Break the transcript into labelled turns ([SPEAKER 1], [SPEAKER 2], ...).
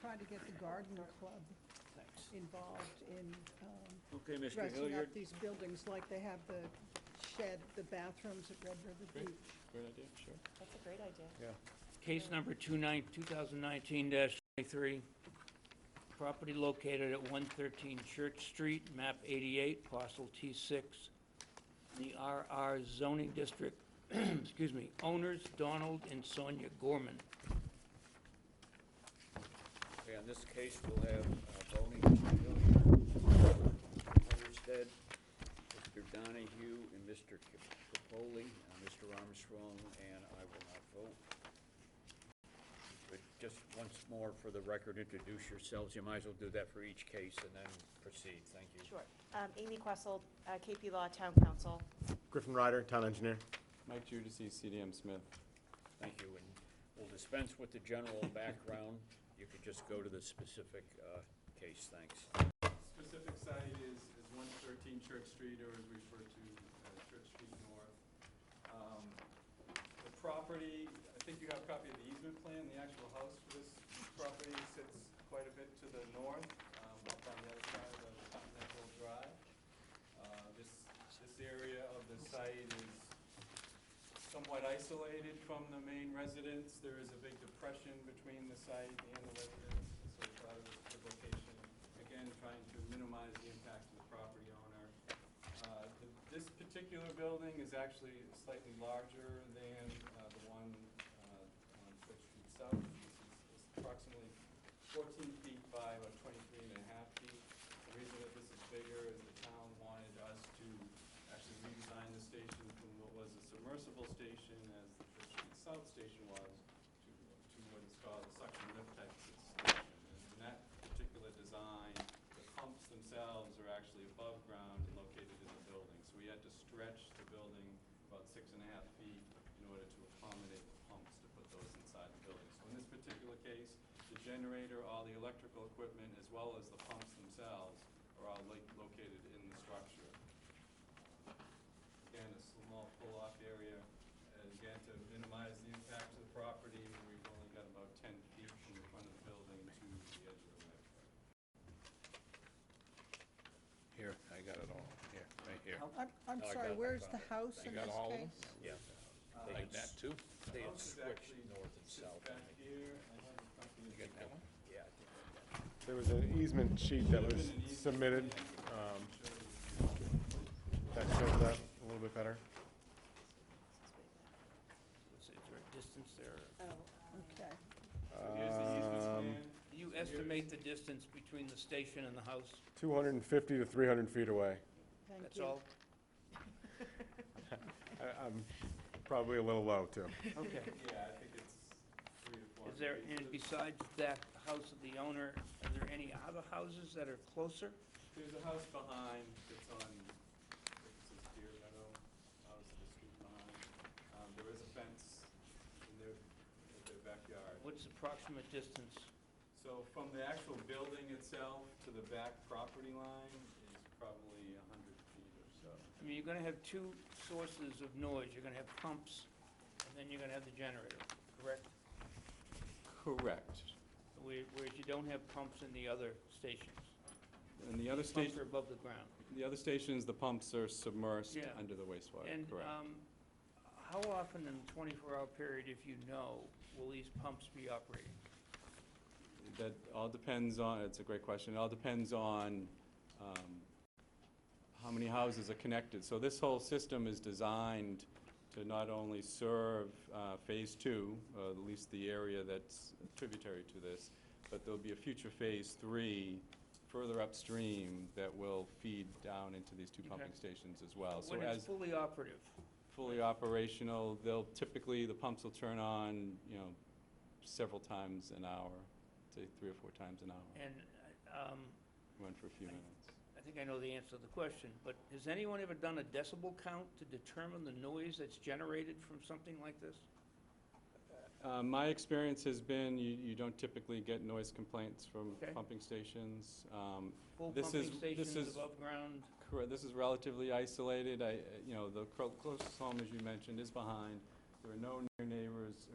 [SPEAKER 1] try Oh, to get the garden club involved in um,
[SPEAKER 2] Okay, Mr. Hill,
[SPEAKER 1] dressing
[SPEAKER 2] you're.
[SPEAKER 1] up these buildings like they have the shed, the bathrooms at Red River
[SPEAKER 2] Great.
[SPEAKER 1] Beach.
[SPEAKER 2] Great idea, sure.
[SPEAKER 3] That's a great idea.
[SPEAKER 4] Case number 29 2019-23, property located at 113 Church Street, map 88, parcel T6, the RR zoning district, excuse me, owners Donald and Sonia Gorman.
[SPEAKER 5] Okay, on this case, we'll have uh, voting, Homestead, Mr. Donahue, and Mr. Capoli, uh, Mr. Armstrong, and I will not vote. But just once more, for the record, introduce yourselves. You might as well do that for each case and then proceed. Thank you.
[SPEAKER 3] Sure. Um, Amy Questle, uh, KP Law Town Council.
[SPEAKER 6] Griffin Ryder, Town Engineer.
[SPEAKER 2] Mike Judici, CDM Smith.
[SPEAKER 5] Thank you, and we'll dispense with the general background. You could just go to the specific uh, case, thanks.
[SPEAKER 7] Specific site is, is one thirteen Church Street, or is referred to as Church Street North. Um, The property, I think you have a copy of the easement plan, the actual house for this property sits quite a bit to the north, um, up on the other side of the Continental Drive. Uh, This, this area of the site is somewhat isolated from the main residence. There is a big depression between the site and the residence, so we thought it was a good location. Again, trying to minimize the impact to the property owner. Uh, th- This particular building is actually slightly larger than uh, the one uh, on Church Street South. This is- is approximately 14 feet by about 23 and a half feet. The reason that this is bigger is the town wanted us to actually redesign the station from what was a submersible station, as the Church Street South station was, to, to what is called a suction lift type station. And in that particular design, the pumps themselves are actually above ground and located in the building. So we had to stretch the building about six and a half feet in order to accommodate the pumps to put those inside the building. So in this particular case, the generator, all the electrical equipment, as well as the pumps themselves are all lo- located in the structure. Again, a small pull-off area, and again, to minimize the impact to the property, we've only got about ten feet from the front of the building to the edge of the lake.
[SPEAKER 5] Here, I got it all. Here, right here.
[SPEAKER 1] I'm, I'm
[SPEAKER 5] No, I
[SPEAKER 1] sorry,
[SPEAKER 5] got it, I
[SPEAKER 1] where's
[SPEAKER 5] found
[SPEAKER 1] the
[SPEAKER 5] it.
[SPEAKER 1] house
[SPEAKER 8] You
[SPEAKER 1] in
[SPEAKER 8] got
[SPEAKER 1] this
[SPEAKER 8] all of them?
[SPEAKER 1] case?
[SPEAKER 5] Yeah.
[SPEAKER 8] They did that too?
[SPEAKER 5] They had
[SPEAKER 7] House is
[SPEAKER 5] switched
[SPEAKER 7] actually
[SPEAKER 5] north and
[SPEAKER 7] Sits
[SPEAKER 5] south. I
[SPEAKER 7] back
[SPEAKER 5] think.
[SPEAKER 7] here, I have a copy
[SPEAKER 8] You
[SPEAKER 7] of
[SPEAKER 8] got that one?
[SPEAKER 5] Yeah, I think I got it.
[SPEAKER 6] There was an easement sheet that was submitted, um, that shows that a little bit better.
[SPEAKER 4] Is there a distance there?
[SPEAKER 3] Oh,
[SPEAKER 1] Okay,
[SPEAKER 7] So Here's the
[SPEAKER 6] Um,
[SPEAKER 7] easement plan.
[SPEAKER 4] Do you estimate the distance between the station and the house?
[SPEAKER 6] 250 to 300 feet away.
[SPEAKER 1] thank you.
[SPEAKER 4] That's all?
[SPEAKER 6] I- I'm probably a little low, too.
[SPEAKER 4] Okay.
[SPEAKER 7] Yeah, I think it's three to four.
[SPEAKER 4] Is there,
[SPEAKER 7] feet.
[SPEAKER 4] and besides that house of the owner, are there any other houses that are closer?
[SPEAKER 7] There's a house behind that's on, I think it says Deer Meadow, house the street behind. Um, there is a fence in their, in their backyard.
[SPEAKER 4] What's the approximate distance?
[SPEAKER 7] So from the actual building itself to the back property line is probably a hundred feet or so.
[SPEAKER 4] I mean, you're gonna have two sources of noise, you're gonna have pumps, and then you're gonna have the generator, correct?
[SPEAKER 7] Correct.
[SPEAKER 4] Where- Whereas you don't have pumps in the other stations.
[SPEAKER 7] And the other
[SPEAKER 4] Pumps
[SPEAKER 7] station,
[SPEAKER 4] are above the ground.
[SPEAKER 7] the other stations, the pumps are submersed
[SPEAKER 4] Yeah.
[SPEAKER 7] under the wastewater,
[SPEAKER 4] And,
[SPEAKER 7] correct?
[SPEAKER 4] um, how often in the twenty-four hour period, if you know, will these pumps be operating?
[SPEAKER 7] That all depends on, it's a great question, it all depends on um, how many houses are connected. So this whole system is designed to not only serve uh, Phase Two, uh, at least the area that's tributary to this, but there'll be a future Phase Three further upstream that will feed down into these two pumping
[SPEAKER 4] Okay.
[SPEAKER 7] stations as well. Uh, So
[SPEAKER 4] When it's
[SPEAKER 7] as
[SPEAKER 4] fully operative,
[SPEAKER 7] fully operational, they'll typically, the pumps will turn on, you know, several times an hour, say three or four times an hour.
[SPEAKER 4] and, um,
[SPEAKER 7] Went for a few
[SPEAKER 4] I-
[SPEAKER 7] minutes.
[SPEAKER 4] I think I know the answer to the question, but has anyone ever done a decibel count to determine the noise that's generated from something like this?
[SPEAKER 7] Uh, My experience has been, you, you don't typically get noise complaints from
[SPEAKER 4] Okay.
[SPEAKER 7] pumping stations. Um,
[SPEAKER 4] Full
[SPEAKER 7] This
[SPEAKER 4] pumping
[SPEAKER 7] is- this
[SPEAKER 4] stations
[SPEAKER 7] is-
[SPEAKER 4] above ground?
[SPEAKER 7] Correct, this is relatively isolated, I, you know, the clo- closest home, as you mentioned, is behind. There are no near neighbors